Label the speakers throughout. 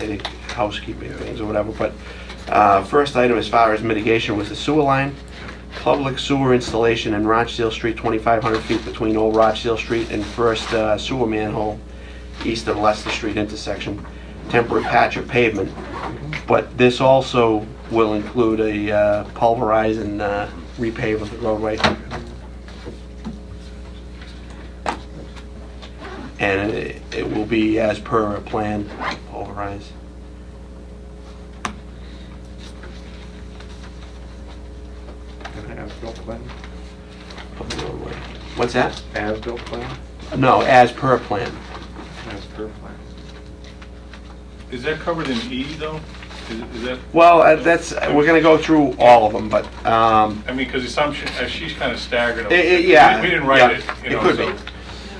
Speaker 1: any housekeeping things or whatever, but uh, first item as far as mitigation was the sewer line. Public sewer installation in Rochdale Street, 2,500 feet between Old Rochdale Street and First uh, Sewer Manhole, east of Leicester Street intersection, temporary patch of pavement. But this also will include a uh, pulverize and uh, repave of the roadway. And it- it will be as per a plan, pulverize.
Speaker 2: As-built plan?
Speaker 1: of the roadway. What's that?
Speaker 2: As-built plan?
Speaker 1: No, as per plan.
Speaker 2: As per plan.
Speaker 3: Is that covered in E though? Is, is that,
Speaker 1: Well, uh, that's, we're gonna go through all of them, but, um,
Speaker 3: I mean, because it's some, she- uh, she's kind of staggered. a
Speaker 1: Eh, eh,
Speaker 3: little bit.
Speaker 1: yeah,
Speaker 3: We we didn't
Speaker 1: yeah.
Speaker 3: write it,
Speaker 1: It
Speaker 3: you know,
Speaker 1: could
Speaker 3: so.
Speaker 1: be.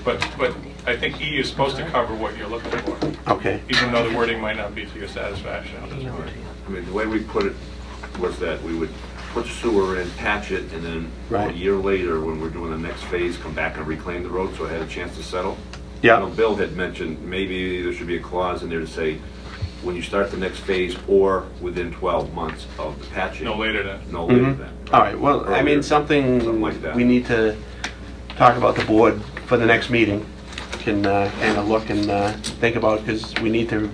Speaker 3: But, but I think E is supposed to cover what you're looking for,
Speaker 1: okay.
Speaker 3: even though the wording might not be to your satisfaction at this point.
Speaker 4: I mean, the way we put it was that we would put sewer in, patch it, and then a
Speaker 1: Right.
Speaker 4: year later, when we're doing the next phase, come back and reclaim the road, so it had a chance to settle. You know,
Speaker 1: Yeah,
Speaker 4: Bill had mentioned, maybe there should be a clause in there to say, when you start the next phase, or within 12 months of the patching.
Speaker 3: No later than,
Speaker 4: No later
Speaker 1: Mhm.
Speaker 4: than.
Speaker 1: all right, well, I mean,
Speaker 4: Earlier.
Speaker 1: something
Speaker 4: Something like that.
Speaker 1: we need to talk about the board for the next meeting. Can, uh, kind of look and, uh, think about, because we need to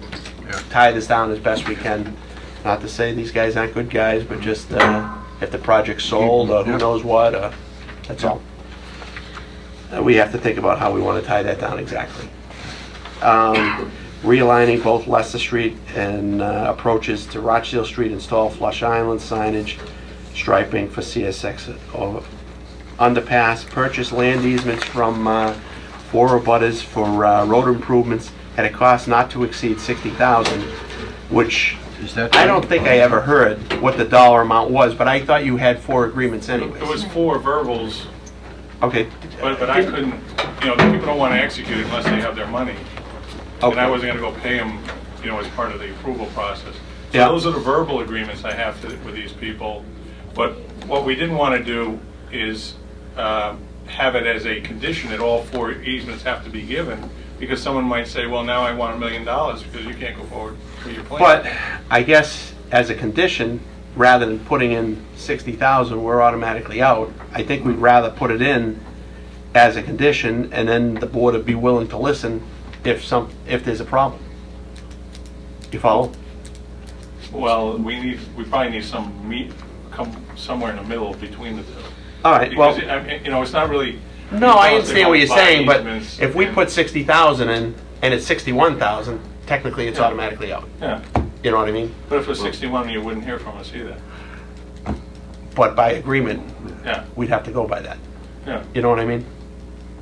Speaker 1: tie this down as best we can. Not to say these guys aren't good guys, but just, uh, if the project's sold, or who knows what, uh, that's all. Uh, We have to think about how we want to tie that down exactly. Um, Realigning both Leicester Street and uh, approaches to Rochdale Street, install flush island signage, striping for CSX o- underpass, purchase land easements from uh, four abutters for uh, road improvements at a cost not to exceed 60000 which
Speaker 5: Is that?
Speaker 1: I don't think I ever heard what the dollar amount was, but I thought you had four agreements anyways.
Speaker 3: it was four verbals,
Speaker 1: Okay,
Speaker 3: but, but I couldn't, you know, the people don't want to execute it unless they have their money. And I
Speaker 1: Okay.
Speaker 3: wasn't going to go pay them, you know, as part of the approval process.
Speaker 1: Yeah.
Speaker 3: So those are the verbal agreements I have to- with these people. But what we didn't want to do is uh, have it as a condition that all four easements have to be given, because someone might say, well, now I want a million dollars because you can't go forward with your plan.
Speaker 1: But I guess as a condition, rather than putting in sixty thousand, we're automatically out. I think we'd rather put it in as a condition, and then the board would be willing to listen if some, if there's a problem. You follow?
Speaker 3: Well, we need, we probably need some meet, come somewhere in the middle between the two.
Speaker 1: All right, well,
Speaker 3: Because, I mean, you know, it's not really.
Speaker 1: no, I
Speaker 3: because they
Speaker 1: understand what you're
Speaker 3: want to buy
Speaker 1: saying, but
Speaker 3: easements
Speaker 1: if we
Speaker 3: and-
Speaker 1: put sixty thousand in, and it's sixty-one thousand, technically it's automatically out.
Speaker 3: Yeah,
Speaker 1: You know what I mean?
Speaker 3: but if it was 61, you wouldn't hear from us either.
Speaker 1: But by agreement,
Speaker 3: Yeah,
Speaker 1: we'd have to go by that.
Speaker 3: yeah.
Speaker 1: You know what I mean?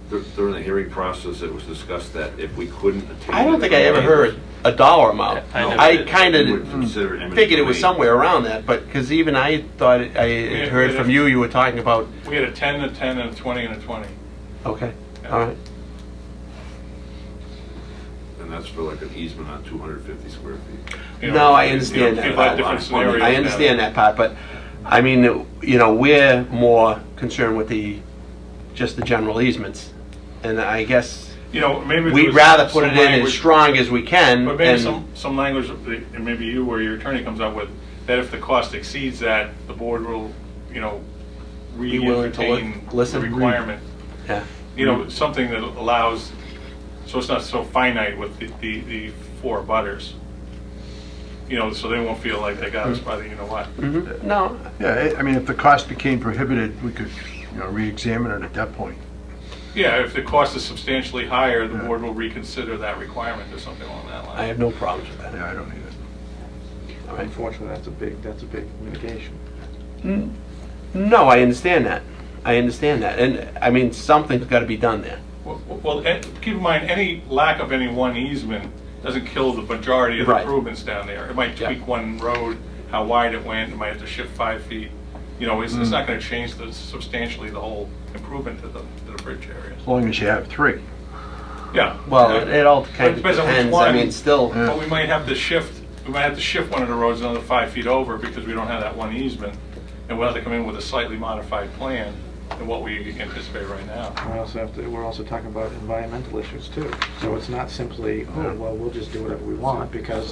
Speaker 4: Dur- During the hearing process, it was discussed that if we couldn't attain.
Speaker 1: I don't think I ever
Speaker 4: agreement,
Speaker 1: heard a dollar amount.
Speaker 3: I never
Speaker 1: I
Speaker 3: did.
Speaker 1: kind
Speaker 4: we would
Speaker 1: of
Speaker 4: consider eminent
Speaker 1: figured it was
Speaker 4: domain.
Speaker 1: somewhere around that, but, because even I thought, it- I had heard from you, you were talking about,
Speaker 3: We had a 10, a 10, and a 20, and a 20.
Speaker 1: okay, all right.
Speaker 4: And that's for like an easement on 250 square feet.
Speaker 3: You know,
Speaker 1: No, I
Speaker 3: you know,
Speaker 1: understand that.
Speaker 3: People have
Speaker 1: part.
Speaker 3: different scenarios.
Speaker 1: I understand that part, but, I mean, you know, we're more concerned with the, just the general easements. And I guess,
Speaker 3: You know, maybe. there
Speaker 1: we'd
Speaker 3: was
Speaker 1: rather
Speaker 3: some
Speaker 1: put it in as
Speaker 3: language-
Speaker 1: strong as we can,
Speaker 3: But maybe
Speaker 1: and,
Speaker 3: some, some language, that- and maybe you or your attorney comes up with, that if the cost exceeds that, the board will, you know,
Speaker 1: willing to li-
Speaker 3: re-entertain the
Speaker 1: listen.
Speaker 3: requirement.
Speaker 1: yeah.
Speaker 3: You know, something that allows, so it's not so finite with the, the, the four butters. You know, so they won't feel like they got us
Speaker 1: Hmm.
Speaker 3: by the, you know what.
Speaker 1: Mhm. No,
Speaker 5: Yeah, I- I mean, if the cost became prohibited, we could, you know, re-examine it at that point.
Speaker 3: Yeah, if the cost is substantially higher, the board will reconsider that requirement or something along that line.
Speaker 1: I have no problems with that.
Speaker 5: Yeah, I don't need it.
Speaker 1: All right.
Speaker 2: Unfortunately, that's a big, that's a big mitigation.
Speaker 1: No, I understand that. I understand that. And, I mean, something's got to be done there.
Speaker 3: Well- Well, and keep in mind, any lack of any one easement doesn't kill the majority of the
Speaker 1: Right.
Speaker 3: improvements down there. It might
Speaker 1: Yeah.
Speaker 3: tweak one road, how wide it went, it might have to shift five feet. You know, it's, it's
Speaker 1: Mm.
Speaker 3: not gonna change the substantially the whole improvement to the, to the bridge areas.
Speaker 5: As long as you have three.
Speaker 3: Yeah.
Speaker 1: Well, it
Speaker 3: exactly.
Speaker 1: it all
Speaker 3: But
Speaker 1: kind
Speaker 3: it
Speaker 1: of
Speaker 3: depends on which
Speaker 1: depends. I
Speaker 3: one.
Speaker 1: mean, still,
Speaker 5: Yeah.
Speaker 3: But we might have to shift, we might have to shift one of the roads another five feet over because we don't have that one easement. And we'll have to come in with a slightly modified plan than what we anticipate right now.
Speaker 2: We also have to, we're also talking about environmental issues too. So it's not simply, oh, well, we'll just do whatever we want because